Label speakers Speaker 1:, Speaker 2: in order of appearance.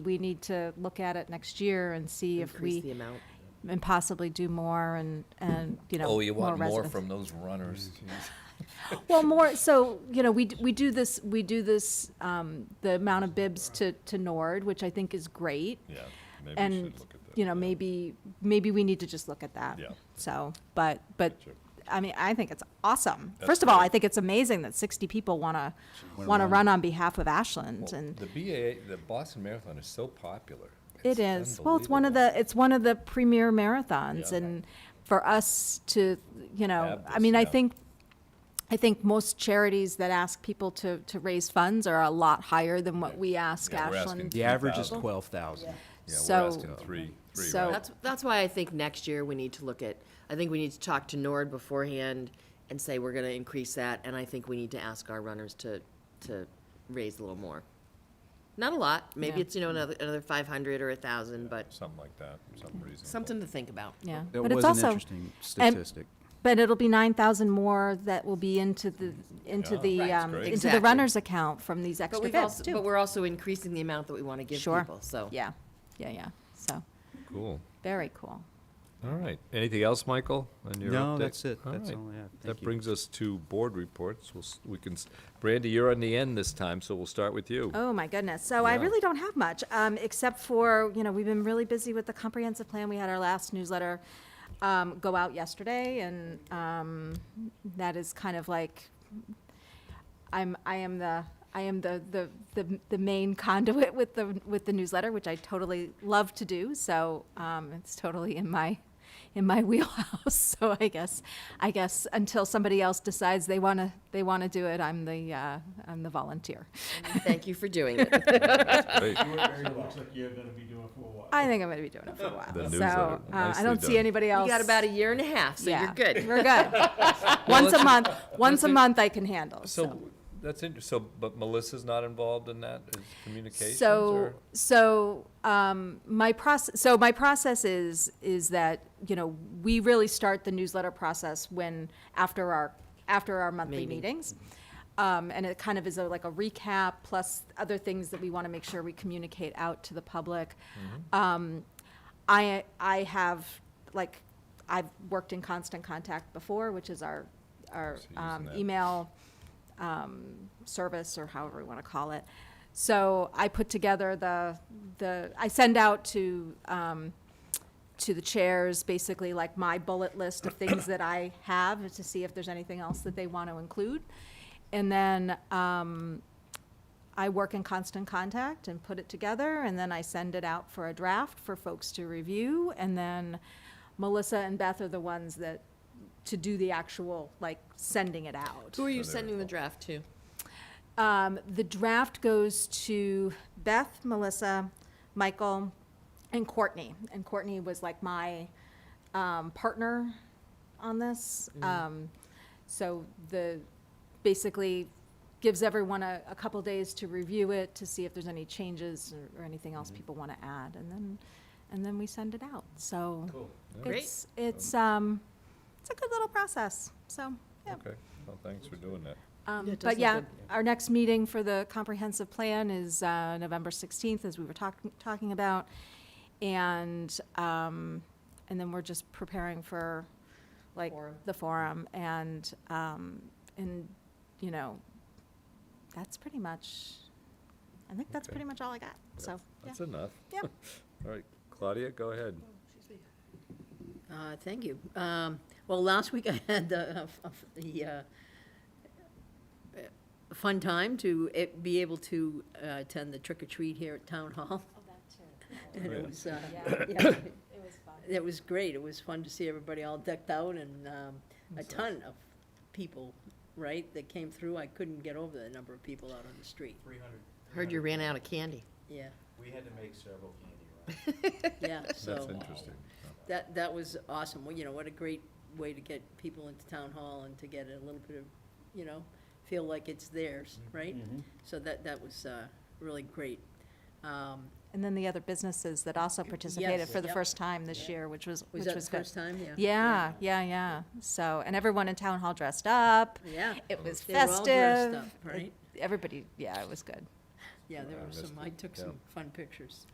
Speaker 1: we need to look at it next year and see if
Speaker 2: Increase the
Speaker 1: we,
Speaker 2: amount.
Speaker 1: and possibly do more and, and, you know.
Speaker 3: Oh, you want more
Speaker 1: residents.
Speaker 3: from those runners.
Speaker 4: Mm-hmm.
Speaker 1: Well, more, so, you know, we, d- we do this, we do this, um, the amount of bibs to, to Nord, which I think is great.
Speaker 4: Yeah, maybe we
Speaker 1: And,
Speaker 4: should look at that.
Speaker 1: you know,
Speaker 4: yeah.
Speaker 1: maybe, maybe we need to just look at that.
Speaker 4: Yeah.
Speaker 1: So, but, but,
Speaker 4: Gotcha.
Speaker 1: I mean, I think it's awesome.
Speaker 4: That's
Speaker 1: First of all,
Speaker 4: great.
Speaker 1: I think it's amazing that sixty people wanna, wanna run on behalf of Ashland
Speaker 3: Well,
Speaker 1: and.
Speaker 3: The BAA, the Boston Marathon is so popular.
Speaker 1: It is. Well, it's one of the, it's one of the premier marathons
Speaker 3: Yeah.
Speaker 1: and for us to, you know,
Speaker 3: Have
Speaker 1: I
Speaker 3: this,
Speaker 1: mean, I
Speaker 3: yeah.
Speaker 1: think, I think most charities that ask people to, to raise funds are a lot higher than what we ask
Speaker 3: Yeah, we're
Speaker 1: Ashland.
Speaker 3: asking-
Speaker 5: The average is
Speaker 3: 2,000.
Speaker 5: twelve thousand.
Speaker 1: So-
Speaker 3: Yeah, we're asking three, three,
Speaker 1: so-
Speaker 3: right?
Speaker 2: That's, that's why I think next year we need to look at, I think we need to talk to Nord beforehand and say we're gonna increase that, and I think we need to ask our runners to, to raise a little more. Not a lot, maybe
Speaker 1: Yeah.
Speaker 2: it's, you know, another, another five hundred or a thousand, but
Speaker 4: Something like that, some reason.
Speaker 2: something to think about.
Speaker 1: Yeah.
Speaker 5: That
Speaker 1: But it's
Speaker 5: was an
Speaker 1: also-
Speaker 5: interesting statistic.
Speaker 1: But it'll be nine thousand more that will be into the,
Speaker 3: Mm-hmm.
Speaker 1: into
Speaker 4: Yeah.
Speaker 1: the,
Speaker 2: Right.
Speaker 1: um,
Speaker 4: Great.
Speaker 1: into the
Speaker 2: Exactly.
Speaker 1: runner's account from these
Speaker 2: But
Speaker 1: extra
Speaker 2: we've
Speaker 1: bibs
Speaker 2: also,
Speaker 1: too.
Speaker 2: but we're also increasing the amount that we wanna give
Speaker 1: Sure.
Speaker 2: people, so.
Speaker 1: Yeah, yeah, yeah. So,
Speaker 4: Cool.
Speaker 1: very cool.
Speaker 4: All right. Anything else, Michael, on your
Speaker 5: No,
Speaker 4: update?
Speaker 5: that's it. That's
Speaker 4: right.
Speaker 5: all I have. Thank
Speaker 4: That
Speaker 5: you.
Speaker 4: brings us to board reports. We'll, s- we can, s- Brandy, you're on the end this time, so we'll start with you.
Speaker 1: Oh, my goodness. So I
Speaker 4: Yeah.
Speaker 1: really don't have much, um, except for, you know, we've been really busy with the comprehensive plan. We had our last newsletter, um, go out yesterday and, um, that is kind of like, I'm, I am the, I am the, the, the, the main conduit with the, with the newsletter, which I totally love to do. So, um, it's totally in my, in my wheelhouse. So I guess, I guess until somebody else decides they want to, they want to do it, I'm the, uh, I'm the volunteer.
Speaker 2: Thank you for doing it.
Speaker 4: Great.
Speaker 6: It looks like you're gonna be doing for a while.
Speaker 1: I think I'm going to be doing it for a while.
Speaker 4: The
Speaker 1: so
Speaker 4: newsletter.
Speaker 1: uh, I
Speaker 4: Nicely
Speaker 1: don't see
Speaker 4: done.
Speaker 1: anybody else.
Speaker 2: You got about a year and a half, so
Speaker 1: yeah,
Speaker 2: you're good.
Speaker 1: We're good. once a month, once a
Speaker 4: do-
Speaker 1: month I can handle.
Speaker 4: So, that's inter, so, but Melissa's not involved in that, is communications
Speaker 1: so
Speaker 4: or?
Speaker 1: so um, my process so my process is is that you know we really start the newsletter process when after our after our monthly
Speaker 2: Meeting.
Speaker 1: meetings um, and it kind of is a, like a recap plus other things that we want to make sure we communicate out to the public
Speaker 4: Mm-hmm.
Speaker 1: um, I I have like I've worked in constant contact before which is our our
Speaker 4: So using
Speaker 1: um,
Speaker 4: that.
Speaker 1: email um, service or however we want to call it. So I put together the, the, I send out to, um, to the chairs, basically like my bullet list of things that I have to see if there's anything else that they want to include. And then, um, I work in constant contact and put it together and then I send it out for a draft for folks to review. And then Melissa and Beth are the ones that, to do the actual, like, sending it out.
Speaker 2: Who are you sending the draft to?
Speaker 1: Um, the draft goes to Beth, Melissa, Michael, and Courtney. And Courtney was like my um, partner on this. Um, so the basically gives everyone a, a couple days to review it to see if there's any changes or, or anything else people want to add, and then and then we send it out. So
Speaker 2: Great.
Speaker 1: it's it's um, it's a good little process. So yeah.
Speaker 4: Okay, well, thanks for doing that.
Speaker 1: Um,
Speaker 2: Yeah, it does
Speaker 1: But
Speaker 2: look
Speaker 1: yeah,
Speaker 2: good.
Speaker 1: our next meeting for the comprehensive plan is uh, November 16th, as we were talking, talking about. And, um, and then we're just preparing for, like,
Speaker 2: Forum.
Speaker 1: the forum. And, um, and, you know, that's pretty much, I think that's
Speaker 4: Okay.
Speaker 1: pretty much all I got, so, yeah.
Speaker 4: That's enough.
Speaker 1: Yep.
Speaker 4: All right, Claudia, go ahead.
Speaker 7: Uh, Thank you. Um, Well, last week I had the, uh, f- the uh, uh, fun time to eh, be able to uh, attend the trick or treat here at Town Hall.
Speaker 6: Oh,
Speaker 7: And it was, uh, yeah,
Speaker 1: It was fun.
Speaker 7: it was great. It was fun to see everybody all decked out and um, a ton of people, right, that came through. I couldn't get over the number of people out on the street.
Speaker 6: Three hundred.
Speaker 2: Heard you ran out of candy.
Speaker 7: Yeah,
Speaker 6: We had to make several candy runs.
Speaker 7: yeah, so.
Speaker 4: That's interesting.
Speaker 7: That, that was awesome. Well, you know, what a great way to get people into town hall and to get a little bit of, you know, feel like it's theirs, right? So that, that was, uh, really great. Um,
Speaker 1: And then the other businesses that also participated for the
Speaker 7: yep.
Speaker 1: first time this year, which was,
Speaker 7: was
Speaker 1: which
Speaker 7: that the
Speaker 1: was good.
Speaker 7: first time? Yeah.
Speaker 1: Yeah, yeah, yeah. So, and everyone in town hall dressed up.
Speaker 7: Yeah.
Speaker 1: It was
Speaker 7: They were all dressed
Speaker 1: festive.
Speaker 7: up, right?
Speaker 1: Everybody, yeah, it was good.
Speaker 7: Yeah, there
Speaker 4: I
Speaker 7: were
Speaker 4: missed
Speaker 7: some,
Speaker 4: it,
Speaker 7: I took
Speaker 4: yeah.
Speaker 7: some fun pictures.